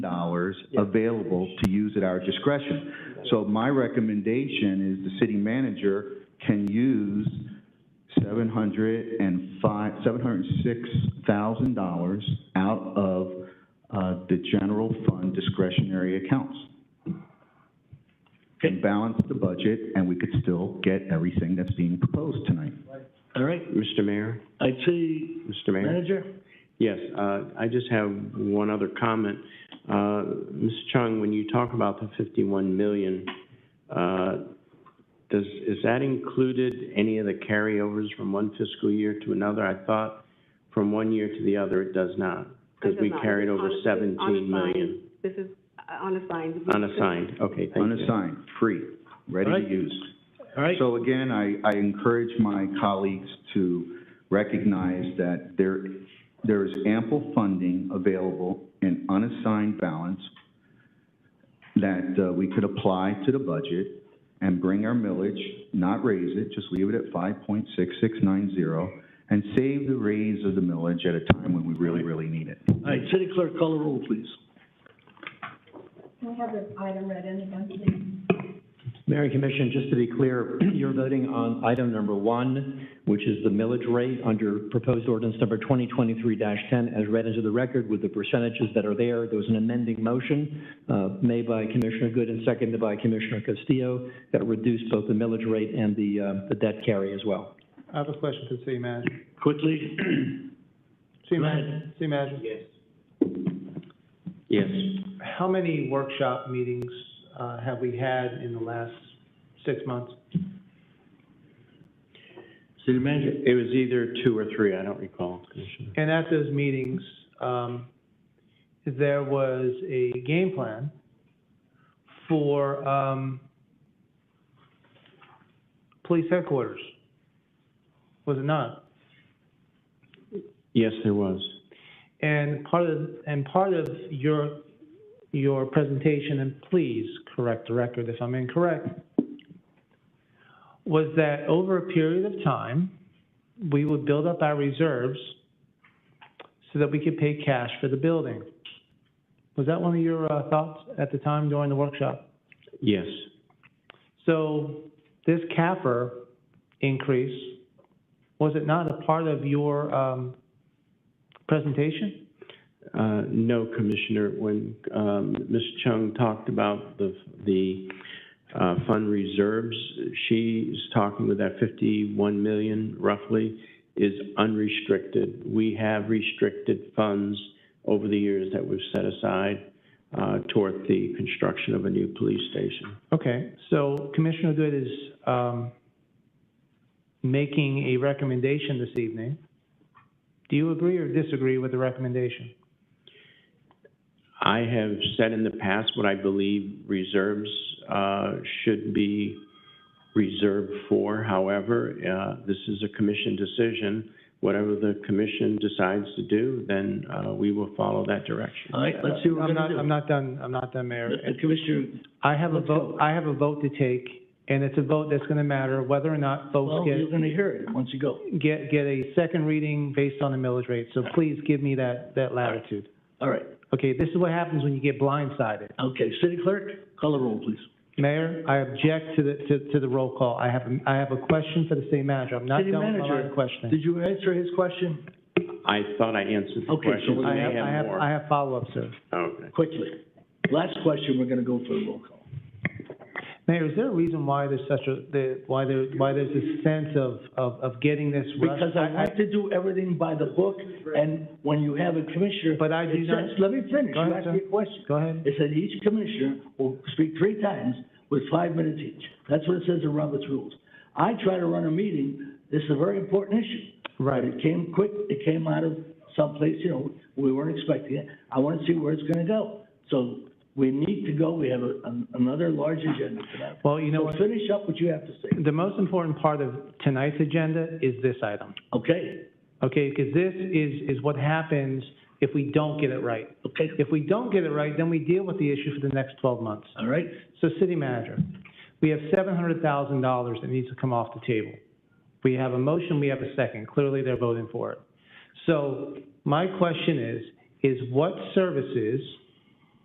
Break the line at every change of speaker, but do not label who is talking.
dollars available to use at our discretion. So my recommendation is the city manager can use seven hundred and five, seven hundred and six thousand dollars out of, uh, the general fund discretionary accounts. And balance the budget, and we could still get everything that's being proposed tonight.
All right,
Mr. Mayor,
IT
Mr. Mayor?
manager?
Yes, uh, I just have one other comment. Uh, Ms. Chung, when you talk about the 51 million, uh, does, is that included any of the carryovers from one fiscal year to another? I thought from one year to the other, it does not, because
It
we
does not.
carried over
It's on-
17 million.
This is uh, unassigned.
Unassigned, okay, thank you.
Unassigned, free, ready to
Alright.
use.
All right,
So again, I, I encourage my colleagues to recognize that there, there is ample funding available in unassigned balance that uh, we could apply to the budget and bring our millage, not raise it, just leave it at five point six six nine zero, and save the raise of the millage at a time when we really, really need it.
all right, city clerk, call the roll, please.
Can we have this item read in again, please?
Mayor and Commission, just to be clear, you're voting on item number one, which is the millage rate under proposed ordinance number 2023-10 as read into the record with the percentages that are there. There was an amending motion uh, made by Commissioner Good and seconded by Commissioner Castillo that reduced both the millage rate and the uh, the debt carry as well.
I have a question for the city manager.
Quickly,
City
Go ahead.
manager, city manager,
Yes,
how many workshop meetings, uh, have we had in the last six months?
city manager,
it was either two or three, I don't recall, Commissioner.
And at those meetings, um, there was a game plan for, um, police headquarters. Was it not?
Yes, there was.
And part of, and part of your, your presentation, and please correct the record if I'm incorrect, was that over a period of time, we would build up our reserves so that we could pay cash for the building. Was that one of your uh, thoughts at the time during the workshop?
Yes,
So this CAFR increase, was it not a part of your um, presentation?
Uh, No, Commissioner, when um, Ms. Chung talked about the, the uh, fund reserves, she's talking with that 51 million roughly is unrestricted. We have restricted funds over the years that we've set aside uh, toward the construction of a new police station.
Okay, so Commissioner Good is, um, making a recommendation this evening. Do you agree or disagree with the recommendation?
I have said in the past what I believe reserves uh, should be reserved for. However, uh, this is a commission decision. Whatever the commission decides to do, then uh, we will follow that direction.
all right, let's see what we're
I'm
gonna
not,
do.
I'm not done, I'm not done, Mayor.
Uh, Commissioner,
I have a
Let's go.
vote, I have a vote to take, and it's a vote that's gonna matter whether or not
well,
folks
you're
get,
gonna hear it once you go.
get, get a second reading based on the millage rate. So please give me that, that latitude.
All right,
Okay, this is what happens when you get blindsided.
okay, city clerk, call the roll, please.
Mayor, I object to the, to, to the roll call. I have, a- I have a question for the city manager. I'm not
City
done with my line
manager,
of questioning.
Did you answer his question?
I thought I answered the
Okay, so
question.
we
I
I have, I
have
have, I
more.
have follow-up, sir.
Okay.
Quickly. Last question, we're gonna go for a roll call.
Mayor, is there a reason why there's such a, the, why there, why there's this sense of, of, of getting this rushed?
Because I want to do everything by the book, and when you have a commissioner.
But I do
it
not-
says- Let me finish,
Go
you
ahead,
asked
sir.
me a question.
Go ahead.
It said each commissioner will speak three times with five minutes each. That's what it says in Robert's Rules. I try to run a meeting, this is a very important issue. But
Right.
it came quick, it came out of someplace, you know, we weren't expecting it. I want to see where it's going to go. So we need to go, we have a- an- another large agenda for that.
Well, you know
So
what?
finish up what you have to say,
The most important part of tonight's agenda is this item,
okay?
okay? Because this is, is what happens if we don't get it right.
Okay,
If we don't get it right, then we deal with the issue for the next twelve months.
all right?
So city manager, we have seven hundred thousand dollars that needs to come off the table. We have a motion, we have a second, clearly they're voting for it. So my question is, is what services